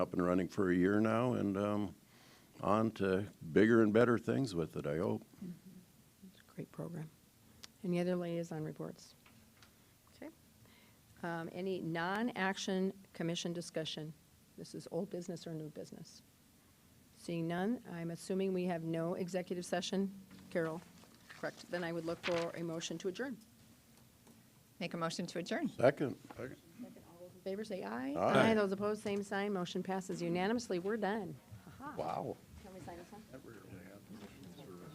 up and running for a year now and um, on to bigger and better things with it, I hope. It's a great program. Any other liaison reports? Okay. Um, Any non-action commission discussion? This is old business or new business? Seeing none, I'm assuming we have no executive session. Carol, correct? Then I would look for a motion to adjourn. Make a motion to adjourn. Second. Those in favor, say aye. Aye. Those opposed, same sign. Motion passes unanimously. We're done. Wow.